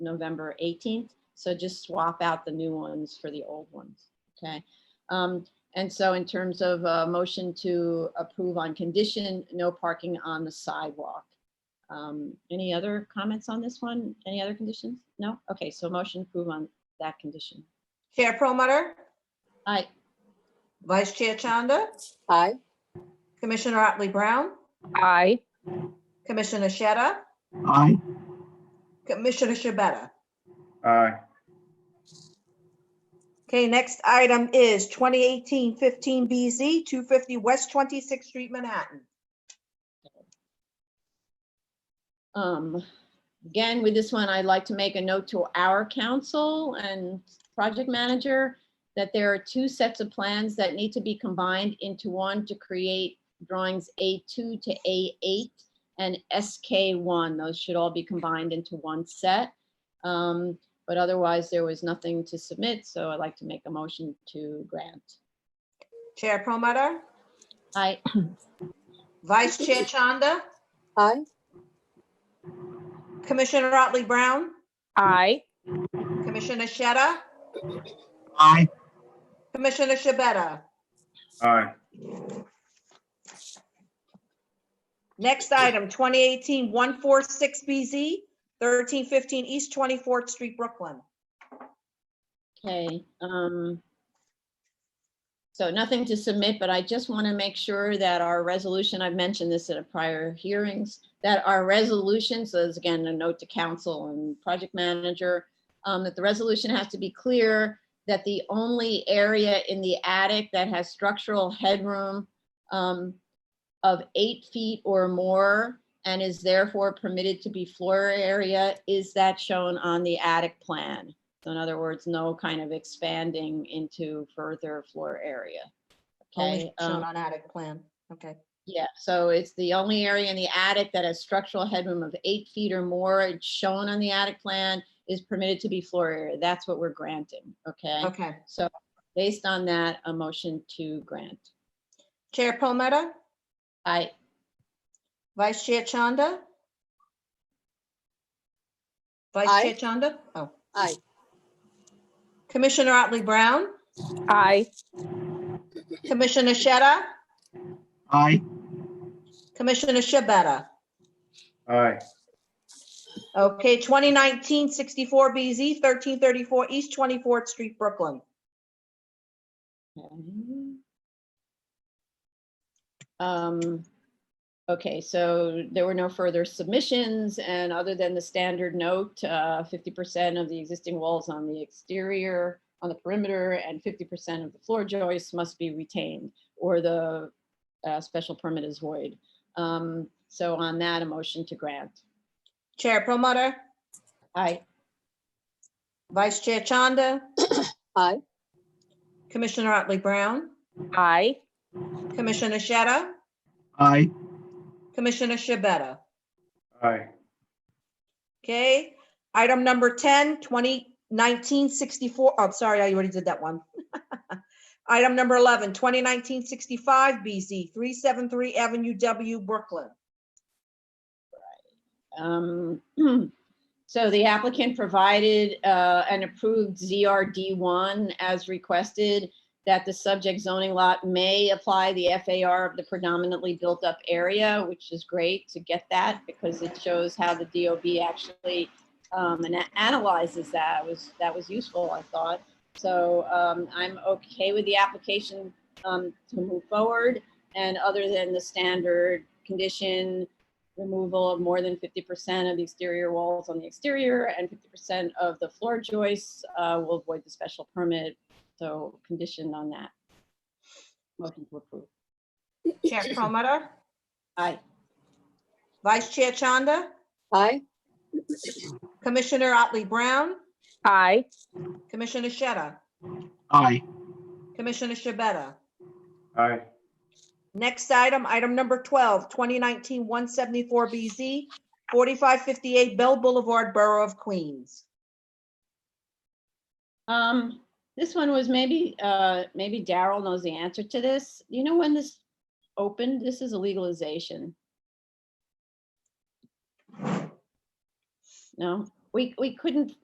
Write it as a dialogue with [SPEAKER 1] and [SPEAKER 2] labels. [SPEAKER 1] November 18th. So just swap out the new ones for the old ones, okay? Um, And so in terms of a motion to approve on condition, no parking on the sidewalk. Um, Any other comments on this one? Any other conditions? No? Okay, so motion approve on that condition.
[SPEAKER 2] Chair Promoter,
[SPEAKER 1] Aye.
[SPEAKER 2] Vice Chair Chanda,
[SPEAKER 3] Aye.
[SPEAKER 2] Commissioner Otley Brown,
[SPEAKER 3] Aye.
[SPEAKER 2] Commissioner Sheta,
[SPEAKER 4] aye,
[SPEAKER 2] Commissioner Shabeta.
[SPEAKER 5] aye,
[SPEAKER 2] Okay, next item is 2018-15 BZ, 250 West 26th Street, Manhattan.
[SPEAKER 1] Um, Again, with this one, I'd like to make a note to our council and project manager that there are two sets of plans that need to be combined into one to create drawings A2 to A8 and SK1. Those should all be combined into one set. Um, But otherwise, there was nothing to submit, so I'd like to make a motion to grant.
[SPEAKER 2] Chair Promoter,
[SPEAKER 1] I,
[SPEAKER 2] Vice Chair Chanda,
[SPEAKER 3] Aye.
[SPEAKER 2] Commissioner Otley Brown,
[SPEAKER 3] Aye.
[SPEAKER 2] Commissioner Sheta,
[SPEAKER 4] aye,
[SPEAKER 2] Commissioner Shabeta.
[SPEAKER 5] aye,
[SPEAKER 2] Next item, 2018-146 BZ, 1315 East 24th Street, Brooklyn.
[SPEAKER 1] Okay, um. So nothing to submit, but I just want to make sure that our resolution, I've mentioned this at a prior hearings, that our resolution, so this is again, a note to council and project manager, um, that the resolution has to be clear that the only area in the attic that has structural headroom um, of eight feet or more and is therefore permitted to be floor area is that shown on the attic plan. So in other words, no kind of expanding into further floor area. Okay,
[SPEAKER 2] Only shown
[SPEAKER 1] um,
[SPEAKER 2] on attic plan. Okay.
[SPEAKER 1] yeah, so it's the only area in the attic that has structural headroom of eight feet or more, it's shown on the attic plan, is permitted to be floor area. That's what we're granting, okay?
[SPEAKER 2] Okay.
[SPEAKER 1] So based on that, a motion to grant.
[SPEAKER 2] Chair Palmetto,
[SPEAKER 1] I,
[SPEAKER 2] Vice Chair Chanda? Vice
[SPEAKER 3] Aye.
[SPEAKER 2] Chair Chanda? Oh.
[SPEAKER 3] Aye.
[SPEAKER 2] Commissioner Otley Brown,
[SPEAKER 3] Aye.
[SPEAKER 2] Commissioner Sheta,
[SPEAKER 4] aye,
[SPEAKER 2] Commissioner Shabeta.
[SPEAKER 5] aye,
[SPEAKER 2] Okay, 2019-64 BZ, 1334 East 24th Street, Brooklyn.
[SPEAKER 1] Um, Okay, so there were no further submissions and other than the standard note, uh, 50% of the existing walls on the exterior, on the perimeter, and 50% of the floor joists must be retained or the uh, special permit is void. Um, So on that, a motion to grant.
[SPEAKER 2] Chair Promoter,
[SPEAKER 1] Aye.
[SPEAKER 2] Vice Chair Chanda,
[SPEAKER 3] Aye.
[SPEAKER 2] Commissioner Otley Brown,
[SPEAKER 3] Aye.
[SPEAKER 2] Commissioner Sheta,
[SPEAKER 4] aye,
[SPEAKER 2] Commissioner Shabeta.
[SPEAKER 5] aye,
[SPEAKER 2] Okay, item number 10, 2019-64, oh, sorry, I already did that one. Item number 11, 2019-65 BZ, 373 Avenue W, Brooklyn.
[SPEAKER 1] Um, So the applicant provided uh, an approved ZRD1 as requested that the subject zoning lot may apply the FAR of the predominantly built-up area, which is great to get that because it shows how the DOB actually um, ana- analyzes that. It was, that was useful, I thought. So um, I'm okay with the application um, to move forward. And other than the standard condition, removal of more than 50% of the exterior walls on the exterior and 50% of the floor joists uh, will void the special permit. So conditioned on that. Motion to approve.
[SPEAKER 2] Chair Promoter,
[SPEAKER 1] Aye.
[SPEAKER 2] Vice Chair Chanda,
[SPEAKER 3] Aye.
[SPEAKER 2] Commissioner Otley Brown,
[SPEAKER 3] Aye.
[SPEAKER 2] Commissioner Sheta,
[SPEAKER 4] aye,
[SPEAKER 2] Commissioner Shabeta.
[SPEAKER 5] aye,
[SPEAKER 2] Next item, item number 12, 2019-174 BZ, 4558 Bell Boulevard, Borough of Queens.
[SPEAKER 1] Um, this one was maybe, uh, maybe Daryl knows the answer to this. You know when this opened? This is a legalization. No? we, we couldn't